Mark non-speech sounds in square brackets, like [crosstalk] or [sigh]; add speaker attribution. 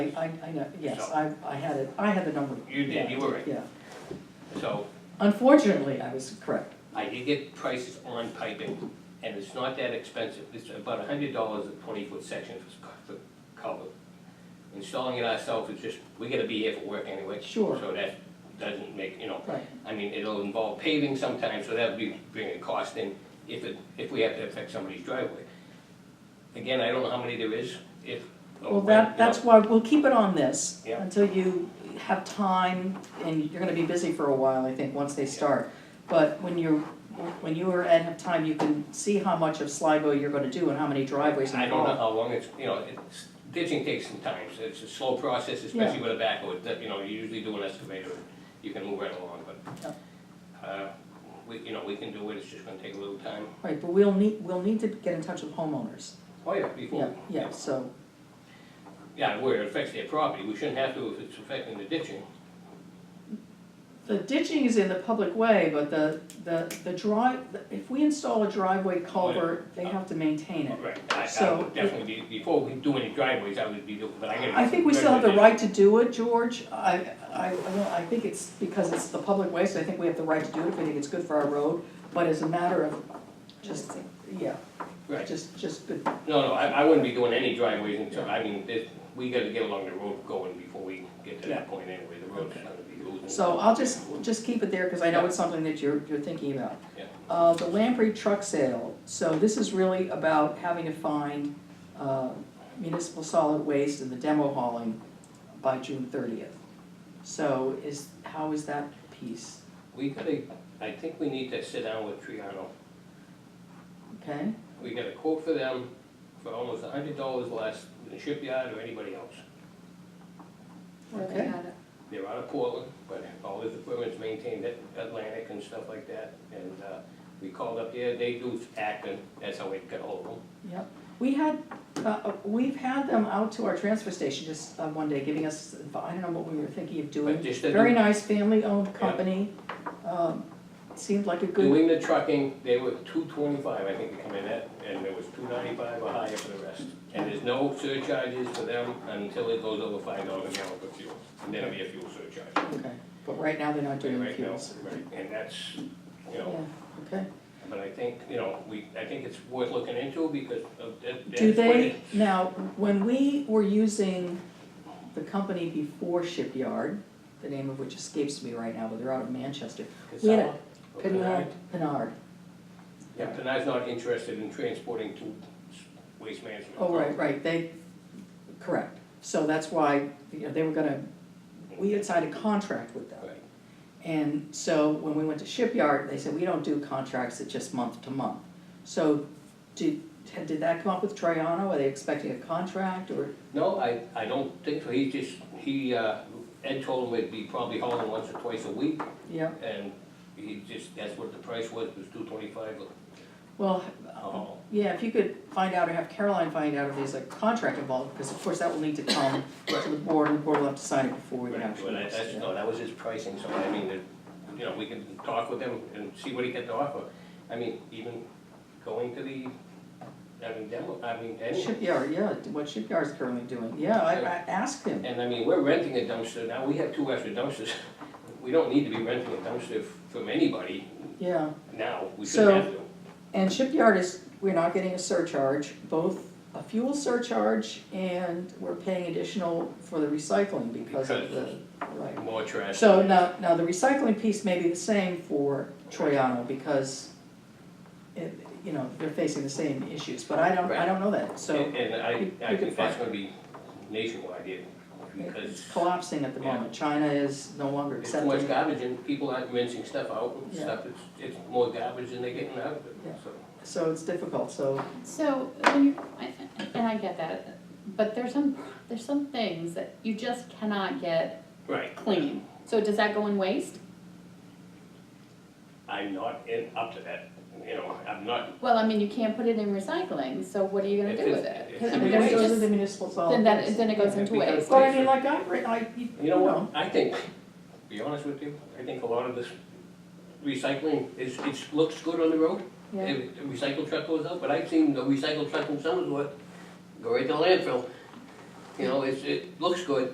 Speaker 1: I, I know, yes,
Speaker 2: So-
Speaker 1: I, I had it, I had the number.
Speaker 2: You did, you were right.
Speaker 1: Yeah,
Speaker 2: So
Speaker 1: unfortunately, I was correct.
Speaker 2: I did get prices on piping, and it's not that expensive, it's about a hundred dollars a twenty-foot section for s- for cover. Installing it ourselves is just, we gotta be here for work anyway.
Speaker 1: Sure.
Speaker 2: So that doesn't make, you know,
Speaker 1: Right,
Speaker 2: I mean, it'll involve paving sometimes, so that would be bringing cost in if it, if we have to affect somebody's driveway. Again, I don't know how many there is, if.
Speaker 1: well, that, that's why, we'll keep it on this
Speaker 2: Yeah.
Speaker 1: until you have time, and you're gonna be busy for a while, I think, once they start. But when you're, when you are at have time, you can see how much of Sligo you're gonna do and how many driveways
Speaker 2: I don't know
Speaker 1: involved.
Speaker 2: how long it's, you know, it's, ditching takes some time, so it's a slow process, especially with a backhoe, It- you know, you usually do an excavator, and you can move right along, but. uh, We, you know, we can do it, it's just gonna take a little time,
Speaker 1: Right, but we'll need, we'll need to get in touch with homeowners,
Speaker 2: oh yeah,
Speaker 1: yeah,
Speaker 2: before.
Speaker 1: yeah, so,
Speaker 2: Yeah, where it affects their property, we shouldn't have to if it's affecting the ditching,
Speaker 1: The ditching is in the public way, but the, the, the drive, if we install a driveway culvert, they have to maintain it.
Speaker 2: right, I, I
Speaker 1: So-
Speaker 2: would definitely, be- before we do any driveways, I would be, doing- but I gotta.
Speaker 1: I think we still have the
Speaker 2: remember
Speaker 1: right to do it, George, I, I, I don't- I think it's because it's the public way, so I think we have the right to do it, if we think it's good for our road, but as a matter of just, yeah,
Speaker 2: that- Right,
Speaker 1: just, just good,
Speaker 2: no, no, I, I wouldn't be doing any driveways until, I mean, this, we gotta get along the road going before we get to
Speaker 1: Yeah.
Speaker 2: that point anyway, the road's gonna be losing.
Speaker 1: so I'll just, we'll just keep it there, cause I know it's something that you're, you're thinking about.
Speaker 2: Yeah.
Speaker 1: Uh, the Lamprey truck sale, so this is really about having to find, uh, municipal solid waste and the demo hauling by June thirtieth. So is, how is that piece,
Speaker 2: We gotta, I think we need to sit down with Triano.
Speaker 1: okay?
Speaker 2: We got a quote for them for almost a hundred dollars less than Shipyard or anybody else.
Speaker 3: Where they
Speaker 1: Okay.
Speaker 3: had it.
Speaker 2: They're out of Portland, but all this equipment's maintained at Atlantic and stuff like that. And, uh, we called up there, they do Acton, that's how we got hold of them.
Speaker 1: Yep, we had, uh, uh, we've had them out to our transfer station just uh, one day, giving us, I don't know what we were thinking of
Speaker 2: But
Speaker 1: doing.
Speaker 2: just the-
Speaker 1: Very nice family-owned company, um, seemed like a good,
Speaker 2: doing the trucking, they were two twenty-five, I think, to come in at, and there was two ninety-five or higher for the rest. And there's no surcharges for them until it goes over five dollars a gallon for fuel, and then it'll be a fuel surcharge.
Speaker 1: okay, but right now they're not doing the
Speaker 2: Right now,
Speaker 1: fuels.
Speaker 2: right, and that's, you
Speaker 1: Yeah,
Speaker 2: know,
Speaker 1: okay.
Speaker 2: but I think, you know, we, I think it's worth looking into because of that.
Speaker 1: Do
Speaker 2: that's what
Speaker 1: they,
Speaker 2: it-
Speaker 1: now, when we were using the company before Shipyard, the name of which escapes me right now, but they're out of Manchester, we had a-
Speaker 2: Casella?
Speaker 1: Pinard, Pinard,
Speaker 2: Yeah, Pinard's not interested in transporting to waste management.
Speaker 1: oh, right, right, they, correct. So that's why, you know, they were gonna, we had signed a contract with them.
Speaker 2: Right.
Speaker 1: And so when we went to Shipyard, they said, we don't do contracts, it's just month to month. So did, did that come up with Triano, are they expecting a contract or,
Speaker 2: No, I, I don't think so, he just, he, uh, Ed told him it'd be probably hauling once or twice a week,
Speaker 1: yeah?
Speaker 2: and he just, that's what the price was, was two twenty-five
Speaker 1: Well,
Speaker 2: a haul.
Speaker 1: Yeah, if you could find out or have Caroline find out if there's a contract involved, because of course that will need to come [coughs] to the board, and the board will have to sign it before we
Speaker 2: But
Speaker 1: can actually.
Speaker 2: I- that's, no, that was his pricing, so I mean, that, you know, we can talk with him and see what he can offer. I mean, even going to the, I mean, demo, I mean, any,
Speaker 1: Shipyard, yeah, what shipyard's currently doing, yeah, I, I asked him,
Speaker 2: and I mean, we're renting a dumpster now, we have two extra dumpsters. [laughs] We don't need to be renting a dumpster from anybody
Speaker 1: yeah.
Speaker 2: now, we shouldn't
Speaker 1: So-
Speaker 2: have to.
Speaker 1: And shipyard is, we're not getting a surcharge, both a fuel surcharge and we're paying additional for the recycling because of the, right.
Speaker 2: More trash.
Speaker 1: So now, now the recycling piece may be the same for Troyano because it, you know, they're facing the same issues, but I don't, I don't know that, so
Speaker 2: And and
Speaker 1: you-
Speaker 2: I, I
Speaker 1: you can
Speaker 2: think that's
Speaker 1: find-
Speaker 2: gonna be nationwide, yeah, because
Speaker 1: it's collapsing at the moment. China is no longer
Speaker 2: it's too much
Speaker 1: accepting.
Speaker 2: garbage and people aren't rinsing stuff out and
Speaker 1: Yeah.
Speaker 2: stuff, it's, it's more garbage than they're getting out of it,
Speaker 1: Yeah.
Speaker 2: so.
Speaker 1: So it's difficult, so,
Speaker 3: So, when you, and I get that, but there's some, there's some things that you just cannot get
Speaker 2: Right,
Speaker 3: clean. So does that go in waste?
Speaker 2: I'm not in, up to that, you know, I'm not.
Speaker 3: Well, I mean, you can't put it in recycling, so what are you gonna
Speaker 2: It
Speaker 3: do with
Speaker 2: is-
Speaker 3: it?
Speaker 2: it
Speaker 3: 'Cause I
Speaker 1: I
Speaker 3: mean,
Speaker 1: mean,
Speaker 3: there's
Speaker 1: those are
Speaker 3: just-
Speaker 1: the municipal solid
Speaker 3: Then that,
Speaker 1: waste.
Speaker 3: then it goes into
Speaker 2: Because-
Speaker 3: waste.
Speaker 1: But I mean, like, I, re- I,
Speaker 2: You know what, I think, to be honest with you, I think a lot of this recycling is, it looks good on the road.
Speaker 3: Yeah.
Speaker 2: If the recycle truck goes out, but I've seen the recycle truck in Somersworth go right to landfill. you know, it's, it looks good,